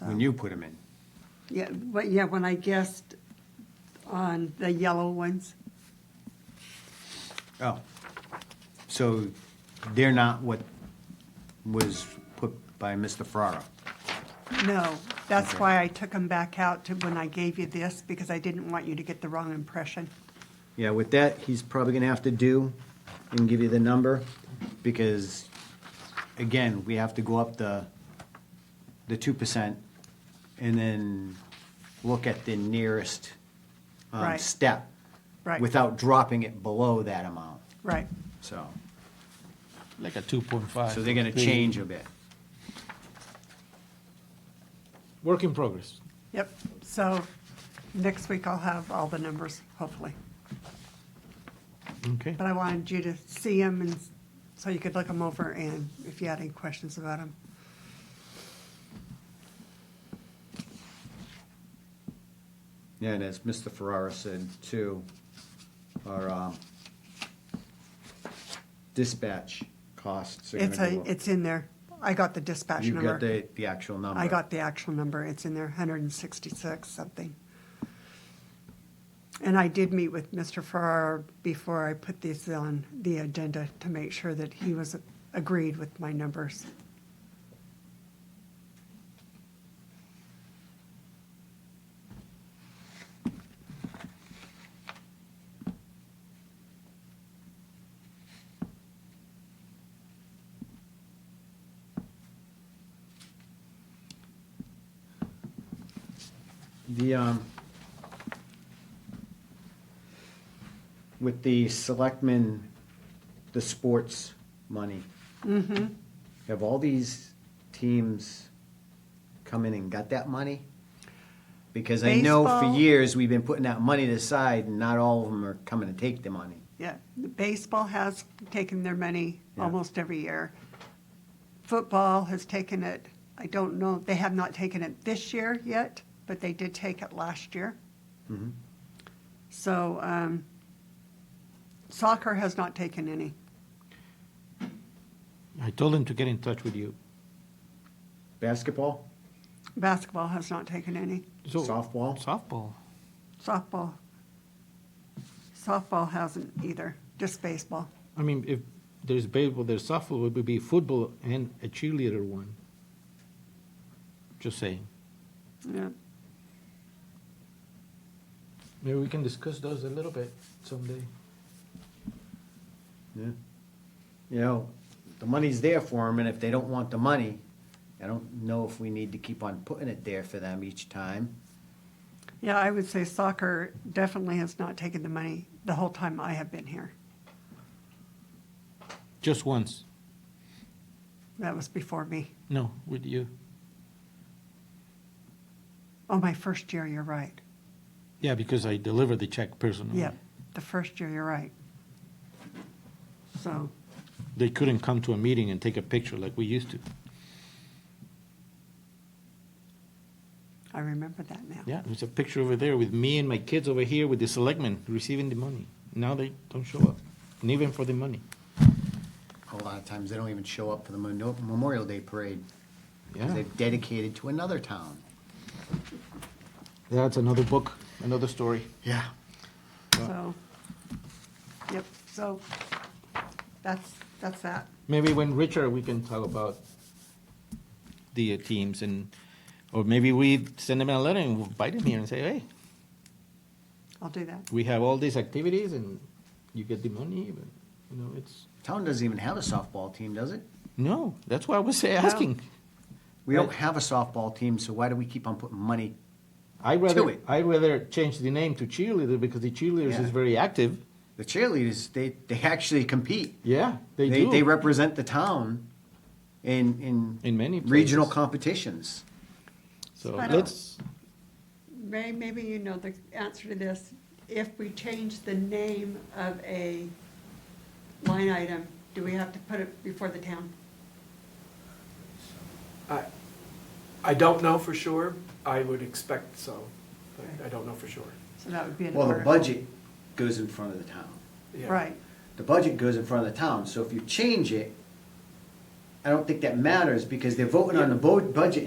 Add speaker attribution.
Speaker 1: when you put them in.
Speaker 2: Yeah, but yeah, when I guessed on the yellow ones,
Speaker 1: Oh, so they're not what was put by Mr. Ferraro?
Speaker 2: no. That's
Speaker 1: Okay.
Speaker 2: why I took them back out to when I gave you this, because I didn't want you to get the wrong impression.
Speaker 1: Yeah, with that, he's probably gonna have to do and give you the number, because, again, we have to go up the, the two percent and then look at the nearest, um,
Speaker 2: Right.
Speaker 1: step.
Speaker 2: Right.
Speaker 1: Without dropping it below that amount,
Speaker 2: Right,
Speaker 1: so,
Speaker 3: like a two point five.
Speaker 1: so they're gonna change a bit.
Speaker 3: Work in progress.
Speaker 2: yep. So next week I'll have all the numbers, hopefully.
Speaker 3: Okay.
Speaker 2: But I wanted you to see them and s- so you could look them over and if you had any questions about them.
Speaker 1: Yeah, and as Mr. Ferrara said too, our um, dispatch costs are
Speaker 2: It's
Speaker 1: gonna
Speaker 2: a,
Speaker 1: go up.
Speaker 2: it's in there. I got the dispatch
Speaker 1: You
Speaker 2: number.
Speaker 1: got the, the actual number?
Speaker 2: I got the actual number, it's in there, hundred and sixty-six something. And I did meet with Mr. Farrar before I put these on the agenda to make sure that he was agreed with my numbers.
Speaker 1: The, um, with the selectmen, the sports money. Have all these teams come in and got that money? Because I know for
Speaker 2: Baseball-
Speaker 1: years, we've been putting that money aside and not all of them are coming to take the money.
Speaker 2: Yeah, baseball has taken their money
Speaker 1: Yeah.
Speaker 2: almost every year. Football has taken it, I don't know, they have not taken it this year yet, but they did take it last year.
Speaker 1: Mm-hmm.
Speaker 2: So, um, soccer has not taken any.
Speaker 3: I told him to get in touch with you.
Speaker 1: Basketball?
Speaker 2: Basketball has not taken any.
Speaker 3: So-
Speaker 1: Softball?
Speaker 3: Softball.
Speaker 2: Softball. Softball hasn't either, just baseball.
Speaker 3: I mean, if there's baseball, there's softball, it would be football and a cheerleader one. Just saying.
Speaker 2: Yeah.
Speaker 3: Maybe we can discuss those a little bit someday.
Speaker 1: Yeah. You know, the money's there for them, and if they don't want the money, I don't know if we need to keep on putting it there for them each time.
Speaker 2: Yeah, I would say soccer definitely has not taken the money the whole time I have been here.
Speaker 3: Just once.
Speaker 2: That was before me.
Speaker 3: No, with you.
Speaker 2: Oh, my first year, you're right.
Speaker 3: Yeah, because I deliver the check personally.
Speaker 2: Yeah, the first year, you're right. So,
Speaker 3: They couldn't come to a meeting and take a picture like we used to.
Speaker 2: I remember that now.
Speaker 3: Yeah, there's a picture over there with me and my kids over here with the selectmen receiving the money. Now they don't show up, and even for the money.
Speaker 1: A lot of times, they don't even show up for the Memo- Memorial Day Parade. 'cause
Speaker 3: Yeah.
Speaker 1: They're dedicated to another town.
Speaker 3: That's another book, another story.
Speaker 1: Yeah.
Speaker 2: So, yep, so that's, that's that.
Speaker 3: Maybe when Richard, we can talk about the uh, teams and, or maybe we send them a letter and we'll invite them here and say, hey,
Speaker 2: I'll do that.
Speaker 3: we have all these activities and you get the money, but, you know, it's,
Speaker 1: Town doesn't even have a softball team, does it?
Speaker 3: no, that's why I was asking.
Speaker 1: We don't
Speaker 3: Right.
Speaker 1: have a softball team, so why do we keep on putting money?
Speaker 3: I
Speaker 1: Do
Speaker 3: rather,
Speaker 1: it.
Speaker 3: I rather change the name to cheerleader because the cheerleaders
Speaker 1: Yeah.
Speaker 3: is very active.
Speaker 1: The cheerleaders, they, they actually compete.
Speaker 3: Yeah, they
Speaker 1: They,
Speaker 3: do.
Speaker 1: they represent the town in, in.
Speaker 3: In many
Speaker 1: Regional
Speaker 3: places.
Speaker 1: competitions.
Speaker 3: So
Speaker 2: Spot on.
Speaker 3: let's,
Speaker 2: Ray, maybe you know the answer to this. If we change the name of a line item, do we have to put it before the town?
Speaker 4: I, I don't know for sure. I would expect so, but I don't know for sure.
Speaker 2: So that would be an
Speaker 1: Well,
Speaker 2: order.
Speaker 1: the budget goes in front of the town.
Speaker 4: Yeah.
Speaker 2: Right,
Speaker 1: The budget goes in front of the town, so if you change it, I don't think that matters, because they're voting on the bo- budget